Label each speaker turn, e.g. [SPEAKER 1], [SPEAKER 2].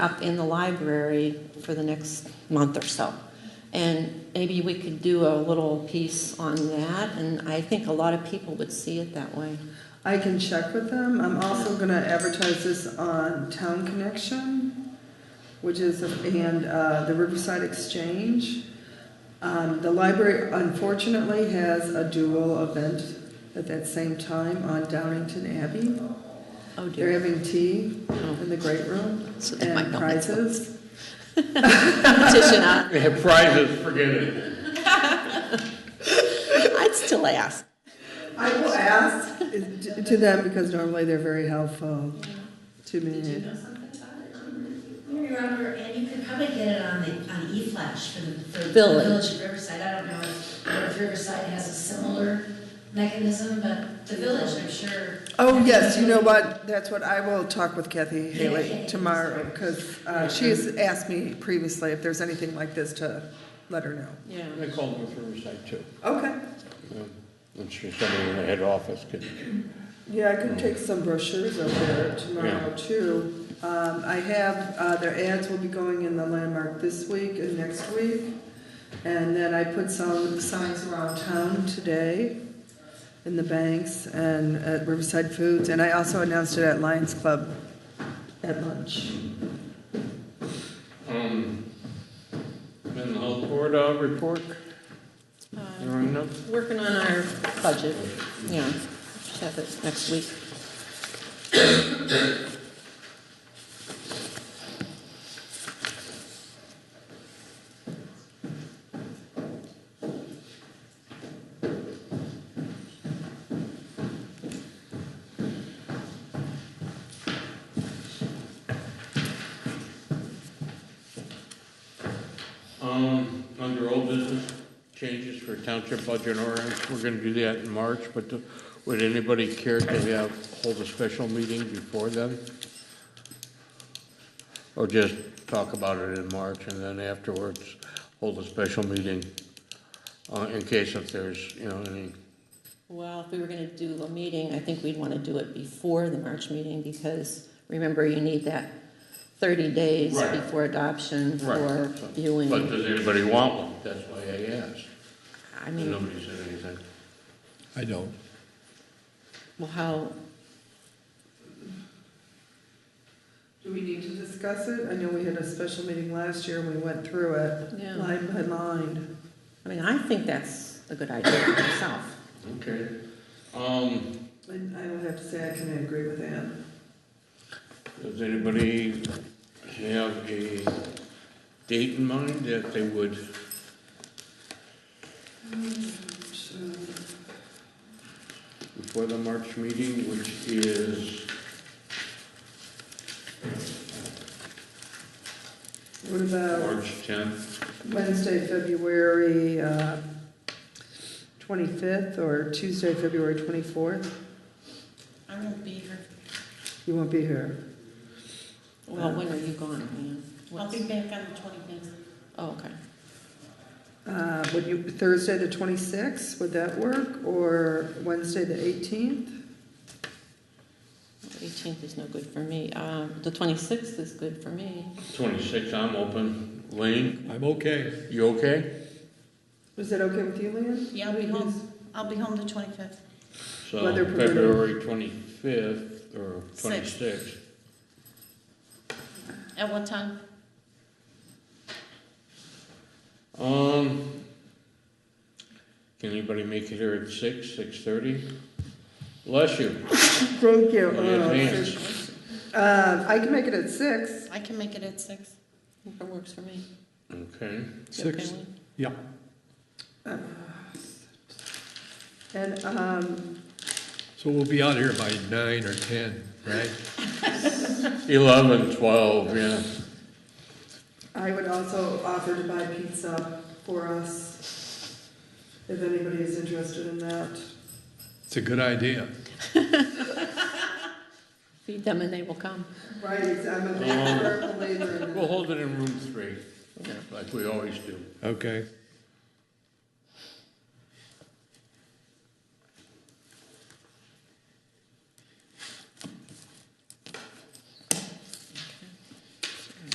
[SPEAKER 1] up in the library for the next month or so. And maybe we could do a little piece on that, and I think a lot of people would see it that way.
[SPEAKER 2] I can check with them. I'm also gonna advertise this on Town Connection, which is, and, uh, the Riverside Exchange. Um, the library unfortunately has a dual event at that same time on Downington Abbey.
[SPEAKER 1] Oh
[SPEAKER 2] They're
[SPEAKER 1] dear.
[SPEAKER 2] having tea in the great room
[SPEAKER 1] So they might
[SPEAKER 2] and
[SPEAKER 1] not make those.
[SPEAKER 2] prizes.
[SPEAKER 1] Petition on,
[SPEAKER 3] They have prizes, forget it.
[SPEAKER 1] I'd still ask.
[SPEAKER 2] I will ask uh, to- to them because normally they're very helpful to me.
[SPEAKER 4] I remember, and you could probably get it on the, on E-Flash for the, for the
[SPEAKER 1] Village.
[SPEAKER 4] Village of Riverside. I don't know if if Riverside has a similar mechanism, but the Village, I'm sure.
[SPEAKER 2] Oh, yes, you know what, that's what, I will talk with Kathy Haley tomorrow, because she has asked me previously if there's anything like this to let her know.
[SPEAKER 1] Yeah.
[SPEAKER 3] They call North Riverside too.
[SPEAKER 2] Okay.
[SPEAKER 3] I'm sure somebody in the head office could.
[SPEAKER 2] Yeah, I can take some brochures over there tomorrow,
[SPEAKER 3] Yeah.
[SPEAKER 2] too. Um, I have, uh, their ads will be going in the Landmark this week and next week, and then I put some signs around town today in the banks and at Riverside Foods, and I also announced it at Lions Club at lunch.
[SPEAKER 3] Um, Then the health board uh, report,
[SPEAKER 1] Uh,
[SPEAKER 3] there are none?
[SPEAKER 1] Working on our budget, yeah, should have it next week.
[SPEAKER 3] Um, under old business changes for township budget ordinance, we're gonna do that in March, but do- would anybody care to have, hold a special meeting before then? Or just talk about it in March and then afterwards hold a special meeting, uh, in case if there's, you know, any,
[SPEAKER 1] Well, if we were gonna do a meeting, I think we'd wanna do it before the March meeting, because remember, you need that thirty days
[SPEAKER 3] Right.
[SPEAKER 1] before adoption
[SPEAKER 3] Right.
[SPEAKER 1] for
[SPEAKER 3] but
[SPEAKER 1] viewing.
[SPEAKER 3] does anybody want one? That's why I asked.
[SPEAKER 1] I
[SPEAKER 3] And
[SPEAKER 1] mean,
[SPEAKER 3] nobody said anything.
[SPEAKER 5] I don't.
[SPEAKER 1] well, how,
[SPEAKER 2] Do we need to discuss it? I know we had a special meeting last year and we went through it
[SPEAKER 1] Yeah.
[SPEAKER 2] line by line.
[SPEAKER 1] I mean, I think that's a good idea myself.
[SPEAKER 3] Okay. Um,
[SPEAKER 2] And I don't have to say I can agree with Ann.
[SPEAKER 3] Does anybody have a date in mind that they would,
[SPEAKER 2] So,
[SPEAKER 3] before the March meeting, which is,
[SPEAKER 2] What about
[SPEAKER 3] March tenth?
[SPEAKER 2] Wednesday, February uh, 25th or Tuesday, February 24th?
[SPEAKER 4] I won't be here.
[SPEAKER 2] You won't be here.
[SPEAKER 1] Well, when are you gone, Ann? What's-
[SPEAKER 4] back on the twenty-fifth.
[SPEAKER 1] Oh, okay.
[SPEAKER 2] Uh, Would you, Thursday, the 26th, would that work? Or Wednesday, the 18th?
[SPEAKER 1] Eighteenth is no good for me. Uh, the twenty-sixth is good for me.
[SPEAKER 3] Twenty-six, I'm open. Lane,
[SPEAKER 5] I'm okay.
[SPEAKER 3] you okay?
[SPEAKER 2] Is that okay with you, Leanne?
[SPEAKER 6] Yeah, I'll be home, I'll be home the twenty-fifth.
[SPEAKER 3] So
[SPEAKER 2] Weather permitting.
[SPEAKER 3] February twenty-fifth or
[SPEAKER 6] Six.
[SPEAKER 3] twenty-sixth.
[SPEAKER 6] At what time?
[SPEAKER 3] Um, can anybody make it here at six, six-thirty? Bless you.
[SPEAKER 2] Thank you.
[SPEAKER 3] In
[SPEAKER 2] Oh,
[SPEAKER 3] advance.
[SPEAKER 2] six. Uh, I can make it at 6.
[SPEAKER 6] I can make it at six.
[SPEAKER 1] It works for me.
[SPEAKER 3] Okay.
[SPEAKER 1] You okay,
[SPEAKER 5] Six.
[SPEAKER 1] Lynn?
[SPEAKER 5] Yeah.
[SPEAKER 2] Uh, And um,
[SPEAKER 5] So we'll be out here by nine or ten, right?
[SPEAKER 3] Eleven, twelve, yeah.
[SPEAKER 2] I would also offer to buy pizza for us, if anybody is interested in that.
[SPEAKER 5] It's a good idea.
[SPEAKER 1] Feed them and they will come.
[SPEAKER 2] Right, ex- I'm a big
[SPEAKER 3] Um,
[SPEAKER 2] firm believer in
[SPEAKER 3] We'll
[SPEAKER 2] that.
[SPEAKER 3] hold it in room three, like we always do.
[SPEAKER 5] Okay.